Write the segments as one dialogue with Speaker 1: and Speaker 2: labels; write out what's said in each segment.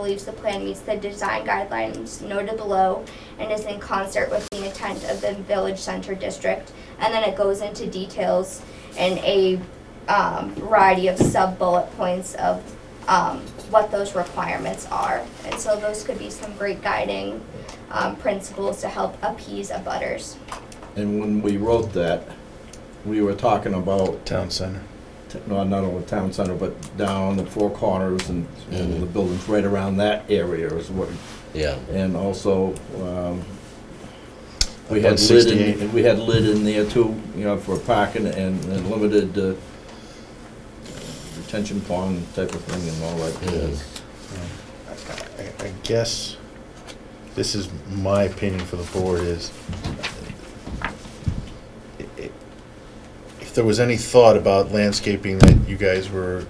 Speaker 1: believes the plan meets the design guidelines noted below and is in concert with the intent of the Village Center District. And then it goes into details and a um, variety of sub-bullet points of um, what those requirements are. And so those could be some great guiding um, principles to help appease abutters.
Speaker 2: And when we wrote that, we were talking about,
Speaker 3: Town center.
Speaker 2: t- no, not only town center, but down the four corners and, and the buildings right around that area is what,
Speaker 4: Yeah,
Speaker 2: and also, um, we
Speaker 3: Up on
Speaker 2: had lid
Speaker 3: 68.
Speaker 2: in, we had lid in there too, you know, for parking and, and limited, uh, retention pond type of thing and all that. jazz.
Speaker 3: I, I guess this is my opinion for the board is i- i- if there was any thought about landscaping that you guys were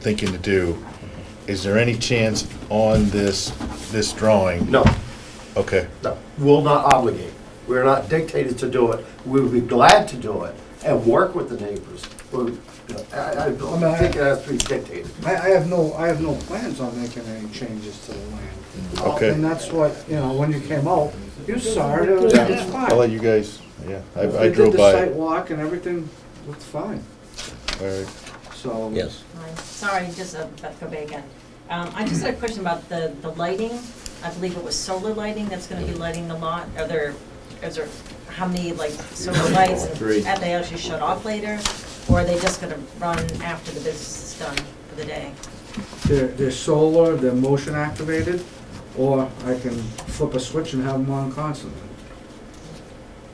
Speaker 3: thinking to do, is there any chance on this, this drawing?
Speaker 5: No,
Speaker 3: Okay,
Speaker 5: no, will not obligate. We're not dictated to do it. We would be glad to do it and work with the neighbors. We're- I, I don't think it has to be dictated.
Speaker 6: I, I have no, I have no plans on making any changes to the land.
Speaker 3: Mm, Okay.
Speaker 6: And that's what, you know, when you came out, you saw it, it was,
Speaker 3: Yeah.
Speaker 6: it's fine.
Speaker 3: I'll let you guys, yeah, I I
Speaker 6: We
Speaker 3: drove
Speaker 6: did the
Speaker 3: by.
Speaker 6: site
Speaker 3: it.
Speaker 6: walk and everything looked fine,
Speaker 3: All right.
Speaker 6: so.
Speaker 4: yes.
Speaker 7: Fine. Sorry, just uh, about Kobe again. Um, I just had a question about the, the lighting. I believe it was solar lighting that's gonna be lighting the lot. Are there, is there, how many like solar lights? and
Speaker 2: Three.
Speaker 7: Have they actually shut off later? Or are they just gonna run after the business is done for the day?
Speaker 6: They're, they're solar, they're motion activated, or I can flip a switch and have them on constantly.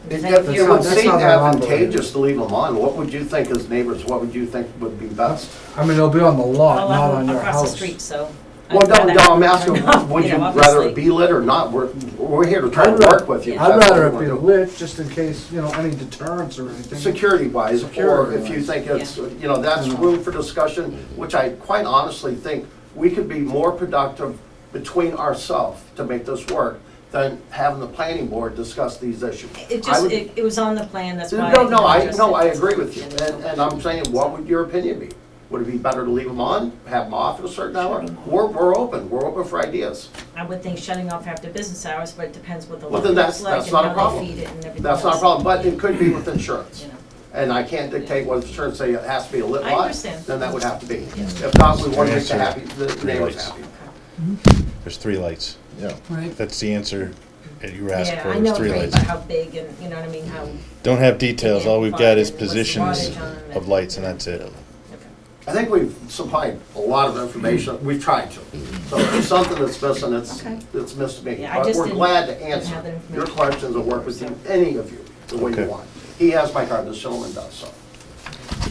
Speaker 5: It
Speaker 7: Thank
Speaker 5: it
Speaker 7: you.
Speaker 5: would
Speaker 6: That's not- that's
Speaker 5: seem
Speaker 6: not that long, believe me.
Speaker 5: advantageous to leave them on. What would you think as neighbors, what would you think would be best?
Speaker 6: I mean, they'll be on the lot,
Speaker 7: Oh, I'm
Speaker 6: not on your
Speaker 7: Across the
Speaker 6: house.
Speaker 7: street, so. I'd
Speaker 5: Well, no,
Speaker 7: rather
Speaker 5: no, I'm
Speaker 7: have
Speaker 5: asking,
Speaker 7: them on,
Speaker 5: would you
Speaker 7: know,
Speaker 5: rather it
Speaker 7: obviously.
Speaker 5: be lit or not? We're, we're here to try
Speaker 6: I'd
Speaker 5: to
Speaker 6: rather-
Speaker 5: work with you.
Speaker 6: I'd
Speaker 5: That's what
Speaker 6: rather
Speaker 5: we
Speaker 6: it be
Speaker 5: want.
Speaker 6: lit, just in case, you know, any deterrence or anything.
Speaker 5: Security wise, or if you
Speaker 6: Security-wise.
Speaker 5: think it's, you know, that's
Speaker 6: Yeah.
Speaker 5: room for discussion, which I quite honestly think we could be more productive between ourselves to make this work than having the planning board discuss these issues.
Speaker 7: It
Speaker 5: I
Speaker 7: just,
Speaker 5: would-
Speaker 7: it, it was on the plan, that's why.
Speaker 5: No, no, I,
Speaker 7: just-
Speaker 5: no, I agree with you, and, and I'm saying, what would your opinion be? Would it be better to leave them on, have them off at a certain hour? We're, we're open, we're open for ideas.
Speaker 7: I would think shutting off after business hours, but it depends what the
Speaker 5: Well,
Speaker 7: lot
Speaker 5: then
Speaker 7: looks
Speaker 5: that's-
Speaker 7: like
Speaker 5: that's
Speaker 7: and
Speaker 5: not a
Speaker 7: how they
Speaker 5: problem.
Speaker 7: feed it and everything else.
Speaker 5: That's not a problem, but it could be with insurance.
Speaker 7: You know.
Speaker 5: And I can't dictate what insurance say it has to be a lit
Speaker 7: I
Speaker 5: lot,
Speaker 7: understand.
Speaker 5: then that would have to be. If not, we want to make the happy, the neighbors
Speaker 3: Yes.
Speaker 5: happy.
Speaker 3: There's three lights.
Speaker 2: Yeah.
Speaker 8: Right.
Speaker 3: That's the answer that you were asking
Speaker 7: Yeah,
Speaker 3: for,
Speaker 7: I
Speaker 3: was
Speaker 7: know
Speaker 3: three
Speaker 7: pretty
Speaker 3: lights.
Speaker 7: much how big and, you know what I mean, how,
Speaker 3: Don't have details, all we've got is
Speaker 7: What's the
Speaker 3: positions
Speaker 7: wattage on it?
Speaker 3: of lights and that's it.
Speaker 7: okay.
Speaker 5: I think we've supplied a lot of information, we've tried to. So if there's something that's missing, it's,
Speaker 7: Okay.
Speaker 5: it's missed me.
Speaker 7: Yeah, I
Speaker 5: But
Speaker 7: just
Speaker 5: we're
Speaker 7: didn't-
Speaker 5: glad to
Speaker 7: didn't have that
Speaker 5: answer your
Speaker 7: information.
Speaker 5: questions and work with you, any of you, the way
Speaker 3: Okay.
Speaker 5: you want. He has my card, this gentleman does, so.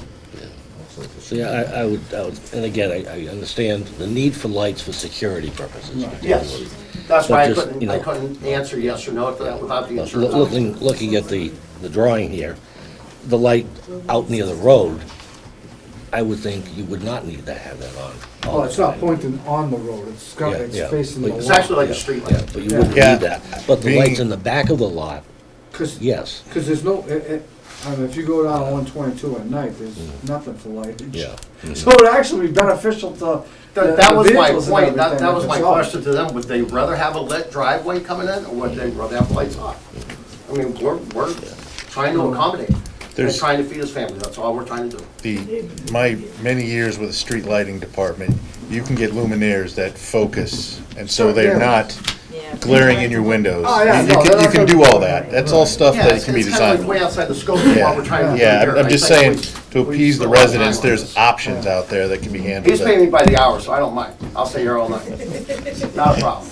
Speaker 4: So, yeah, I, I would, I would, and again, I, I understand the need for lights for security purposes.
Speaker 5: Yes, that's why
Speaker 4: But
Speaker 5: I
Speaker 4: just, you
Speaker 5: couldn't, I
Speaker 4: know-
Speaker 5: couldn't answer yes or no to that without the
Speaker 4: But
Speaker 5: insurance.
Speaker 4: loo- looking, looking at the, the drawing here, the light out near the road, I would think you would not need to have that on. all
Speaker 6: Well, Oh, it's
Speaker 4: the
Speaker 6: not
Speaker 4: time.
Speaker 6: pointing on the road, it's got,
Speaker 4: Yeah,
Speaker 6: it's
Speaker 4: yeah.
Speaker 6: facing the
Speaker 4: It's
Speaker 5: It's
Speaker 6: lot.
Speaker 5: actually like a street
Speaker 4: Yeah,
Speaker 5: light.
Speaker 4: but you wouldn't need
Speaker 3: Yeah.
Speaker 4: that. But the
Speaker 3: Being-
Speaker 4: lights in the back of the lot,
Speaker 6: 'Cause-
Speaker 4: yes,
Speaker 6: Because there's no, it, it, I mean, if you go down one twenty-two at night, there's nothing for lightage.
Speaker 4: yeah.
Speaker 6: So it'd actually be beneficial to. the-
Speaker 5: That, that
Speaker 6: the
Speaker 5: was my
Speaker 6: vehicles and
Speaker 5: point, that, that
Speaker 6: everything
Speaker 5: was
Speaker 6: if
Speaker 5: my
Speaker 6: it's off.
Speaker 5: question to them, would they rather have a lit driveway coming in, or would they rather have lights off? I mean, we're, we're trying to accommodate, and
Speaker 3: There's-
Speaker 5: trying to feed his family, that's all we're trying to do.
Speaker 3: The, my many years with the street lighting department, you can get luminaires that focus, and so they're not
Speaker 7: Yeah.
Speaker 3: glaring in your windows.
Speaker 6: Oh, yeah,
Speaker 3: You
Speaker 6: no,
Speaker 3: can,
Speaker 6: they're
Speaker 3: you
Speaker 6: not
Speaker 3: can do
Speaker 6: gonna-
Speaker 3: all that, that's all stuff
Speaker 5: Yeah,
Speaker 3: that
Speaker 5: it's
Speaker 3: can be
Speaker 5: it's kinda like way
Speaker 3: designed.
Speaker 5: outside the scope of what we're trying to do here.
Speaker 3: Yeah, I'm- I'm
Speaker 5: I
Speaker 3: just saying,
Speaker 5: think
Speaker 3: to
Speaker 5: we- we
Speaker 3: appease the
Speaker 5: still have
Speaker 3: residents,
Speaker 5: time.
Speaker 3: there's options out there that can be handled.
Speaker 5: He's
Speaker 3: that-
Speaker 5: paying me by the hour, so I don't mind, I'll stay here all night, not a problem.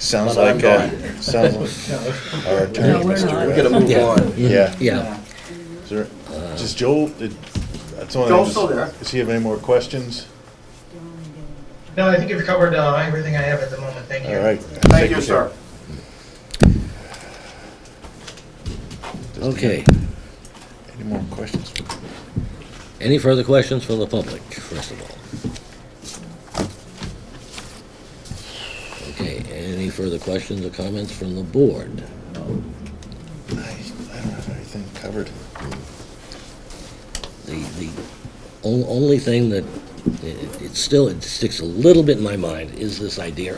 Speaker 3: Sounds
Speaker 5: But I'm
Speaker 3: like, uh, sounds like our attorney,
Speaker 8: we're
Speaker 3: Mr.
Speaker 8: not.
Speaker 3: Redd.
Speaker 2: We gotta move
Speaker 4: Yeah.
Speaker 2: on.
Speaker 3: Yeah.
Speaker 4: Yeah,
Speaker 3: Is there, does Joel, did, that's one of the.
Speaker 5: Joel's still there.
Speaker 3: Does he have any more questions?
Speaker 9: No, I think you've covered uh, everything I have at the moment. Thank you.
Speaker 3: All right.
Speaker 5: Thank you, sir.
Speaker 4: okay.
Speaker 3: Any more questions?
Speaker 4: Any further questions for the public, first of all? Okay, any further questions or comments from the board?
Speaker 3: I, I don't have anything covered.
Speaker 4: The, the on- only thing that it, it still, it sticks a little bit in my mind, is this idea